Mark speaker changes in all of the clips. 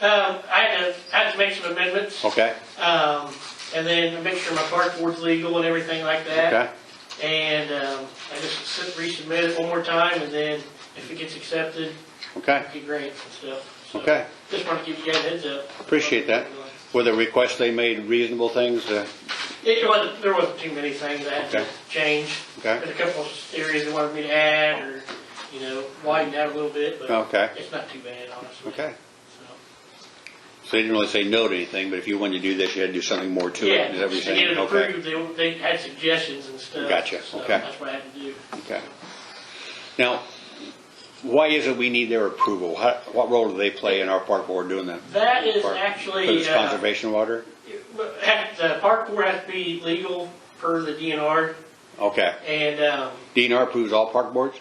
Speaker 1: Um, I had to, I had to make some amendments,
Speaker 2: Okay,
Speaker 1: um, and then make sure my park board's legal and everything like that.
Speaker 2: okay,
Speaker 1: And, um, I just sit- resubmit it one more time, and then if it gets accepted,
Speaker 2: okay,
Speaker 1: get grants and stuff. So,
Speaker 2: okay.
Speaker 1: Just wanna give you guys a heads up.
Speaker 2: Appreciate that. Were the requests they made reasonable things? uh,
Speaker 1: It wasn't, there wasn't too many things that I had to
Speaker 2: Okay.
Speaker 1: change.
Speaker 2: Okay.
Speaker 1: There's a couple of areas they wanted me to add, or, you know, widen out a little bit, but
Speaker 2: Okay,
Speaker 1: it's not too bad, honestly.
Speaker 2: okay.
Speaker 1: So.
Speaker 2: So they didn't really say no to anything, but if you wanted to do this, you had to do something more to
Speaker 1: Yeah,
Speaker 2: it, is that what
Speaker 1: to
Speaker 2: you're
Speaker 1: get
Speaker 2: saying?
Speaker 1: it
Speaker 2: Okay,
Speaker 1: approved, they, they had suggestions and stuff.
Speaker 2: Gotcha,
Speaker 1: so
Speaker 2: okay.
Speaker 1: That's what I had to do.
Speaker 2: okay. Now, why is it we need their approval? How- What role do they play in our park board doing that?
Speaker 1: That is
Speaker 2: Park-
Speaker 1: actually,
Speaker 2: Because it's
Speaker 1: uh,
Speaker 2: conservation water?
Speaker 1: Had- The park board has to be legal per the DNR,
Speaker 2: Okay.
Speaker 1: and, um,
Speaker 2: DNR approves all park boards?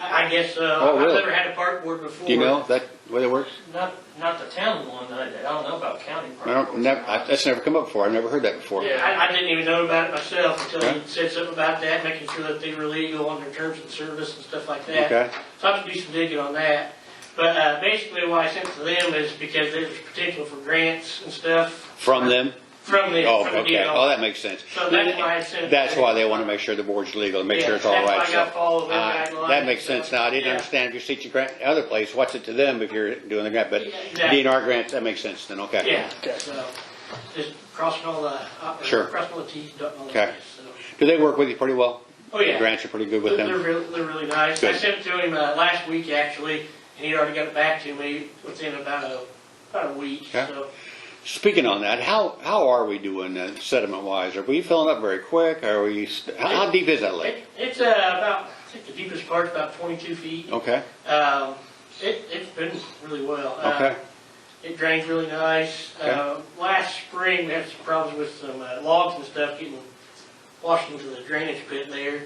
Speaker 1: I I guess,
Speaker 2: Oh,
Speaker 1: uh, I've
Speaker 2: really?
Speaker 1: never had a park board before.
Speaker 2: Do you know that, the way it works?
Speaker 3: Not, not the town one, I, I don't know about county.
Speaker 2: I don't, never, I- that's never come up before, I've never heard that before.
Speaker 3: Yeah.
Speaker 1: I, I didn't even know about it myself until you
Speaker 2: Okay.
Speaker 1: said something about that, making sure that they were legal on their terms of service and stuff like that.
Speaker 2: Okay,
Speaker 1: So I have to do some digging on that. But, uh, basically why I sent it to them is because there's potential for grants and stuff
Speaker 2: from them?
Speaker 1: from the,
Speaker 2: Oh,
Speaker 1: from the
Speaker 2: okay,
Speaker 1: DNR.
Speaker 2: oh, that makes sense.
Speaker 1: So that's why I sent it.
Speaker 2: That's why they want to make sure the board's legal, and make sure it's all
Speaker 1: Yeah,
Speaker 2: right.
Speaker 1: That's why I got
Speaker 2: so-
Speaker 1: followed
Speaker 2: All
Speaker 1: that
Speaker 2: right,
Speaker 1: guideline.
Speaker 2: That makes sense. Now, I didn't
Speaker 1: Yeah.
Speaker 2: understand if you're seeking grant other place, what's it to them if you're doing the grant, but
Speaker 1: Yeah, exactly.
Speaker 2: DNR grants, that makes sense then, okay.
Speaker 1: Yeah, so, just crossing all the, uh,
Speaker 2: Sure.
Speaker 1: crossing all the Ts, dotting all the
Speaker 2: Okay.
Speaker 1: Is, so.
Speaker 2: Do they work with you pretty well?
Speaker 1: Oh, yeah.
Speaker 2: The grants are pretty good
Speaker 1: They're
Speaker 2: with
Speaker 1: they're
Speaker 2: them?
Speaker 1: real, they're really nice. I
Speaker 2: Good.
Speaker 1: sent it to him, uh, last week actually, and he'd already got it back to me within about a, about a week,
Speaker 2: Okay.
Speaker 1: so.
Speaker 2: Speaking on that, how, how are we doing uh, sediment-wise? Are we filling up very quick, are we, st- how how deep is that lake?
Speaker 1: It, it's, uh, about, I think the deepest part's about twenty-two feet.
Speaker 2: Okay,
Speaker 1: Um, it, it's been really well. Uh,
Speaker 2: okay,
Speaker 1: It drains really nice.
Speaker 2: Okay.
Speaker 1: Uh, last spring, we had some problems with some uh, logs and stuff getting washed into the drainage pit there,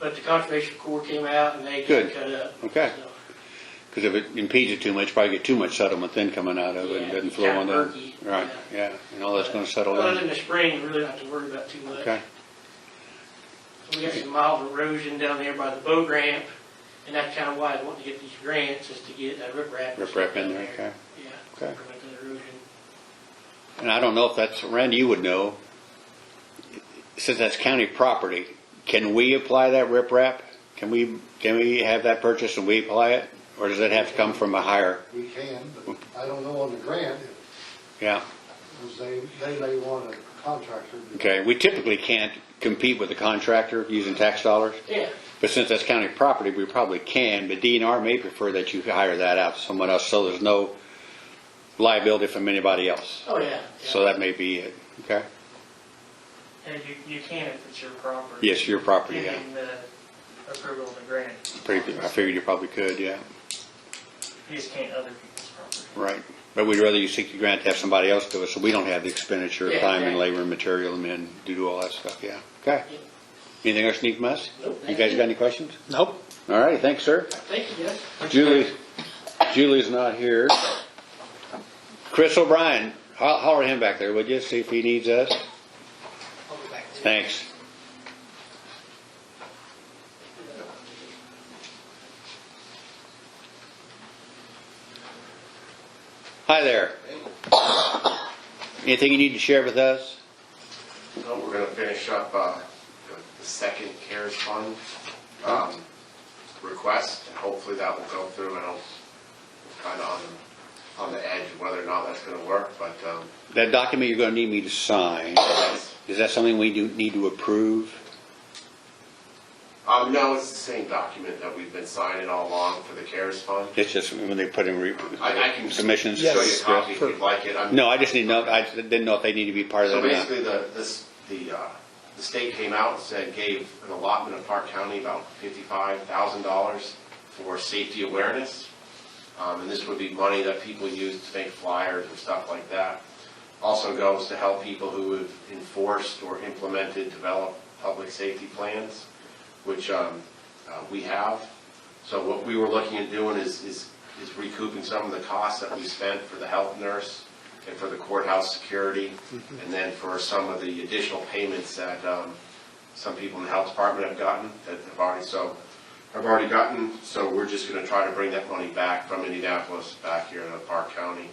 Speaker 1: but the conservation corps came out and they
Speaker 2: Good.
Speaker 1: just cut up.
Speaker 2: Okay.
Speaker 1: So,
Speaker 2: because if it impedes it too much, probably get too much sediment then coming out of it and
Speaker 1: Yeah,
Speaker 2: doesn't
Speaker 1: it's
Speaker 2: flow
Speaker 1: kinda
Speaker 2: on down.
Speaker 1: murky,
Speaker 2: Right, yeah, and all that's gonna settle
Speaker 1: Other
Speaker 2: in,
Speaker 1: than the spring, we really don't have to worry about too much.
Speaker 2: okay,
Speaker 1: We got some mild erosion down there by the boat ramp, and that's kind of why I want to get these grants, is to get that riprap. and
Speaker 2: riprap
Speaker 1: stuff down
Speaker 2: in there, okay.
Speaker 1: Yeah.
Speaker 2: Okay.
Speaker 1: Prevent that erosion.
Speaker 2: And I don't know if that's, Randy, you would know, since that's county property, can we apply that riprap? Can we, can we have that purchased and we apply it? Or does it have to come from a higher?
Speaker 4: We can, but I don't know on the grant,
Speaker 2: Yeah,
Speaker 4: because they, they may want a contractor. to-
Speaker 2: okay, we typically can't compete with the contractor using tax dollars,
Speaker 1: Yeah.
Speaker 2: but since that's county property, we probably can, but DNR may prefer that you hire that out to someone else, so there's no liability from anybody else.
Speaker 1: Oh, yeah. yeah.
Speaker 2: So that may be it, okay?
Speaker 3: And you, you can if it's your property.
Speaker 2: Yes, your property, yeah.
Speaker 3: Getting the approval of the grant,
Speaker 2: Pretty- I figured you probably could, yeah.
Speaker 3: you just can't other people's property.
Speaker 2: Right, but we'd rather you seek the grant to have somebody else do it, so we don't have the expenditure of
Speaker 1: Yeah,
Speaker 2: time and
Speaker 1: exactly.
Speaker 2: labor and material and men to do all that stuff, yeah. Okay.
Speaker 1: Yeah.
Speaker 2: Anything else you need from us?
Speaker 1: Nope,
Speaker 2: You
Speaker 1: thank
Speaker 2: guys
Speaker 1: you.
Speaker 2: got any questions?
Speaker 5: Nope.
Speaker 2: All righty, thanks, sir.
Speaker 1: Thank you, guys.
Speaker 2: Julie, Julie's not here. Chris O'Brien, ho- holler at him back there, would you, see if he needs us?
Speaker 1: I'll go back to you.
Speaker 2: Thanks. Hi there. Anything you need to share with us?
Speaker 6: Well, We're gonna finish up uh, the the second CARES fund um, request, and hopefully that will go through, and I'm kind of on, on the edge of whether or not that's gonna work, but um,
Speaker 2: That document you're gonna need me to sign,
Speaker 6: that's-
Speaker 2: is that something we do, need to approve?
Speaker 6: um, no, it's the same document that we've been signing all along for the CARES fund.
Speaker 2: It's just when they put in re-
Speaker 6: I I can show you
Speaker 2: submissions?
Speaker 6: a copy if you'd like it. I'm-
Speaker 2: No, I just need to know, I didn't know if they need to be part of
Speaker 6: So
Speaker 2: that or not.
Speaker 6: basically, the, this, the, uh, the state came out and said, gave an allotment of Park County about fifty-five thousand dollars for safety awareness. Um, and this would be money that people use to make flyers and stuff like that. Also goes to help people who have enforced or implemented, developed public safety plans, which, um, uh, we have. So what we were looking at doing is, is is recouping some of the costs that we spent for the health nurse and for the courthouse security, and then for some of the additional payments that um, some people in the health department have gotten, that have already, so, have already gotten. So we're just gonna try to bring that money back from Indianapolis back here to Park County.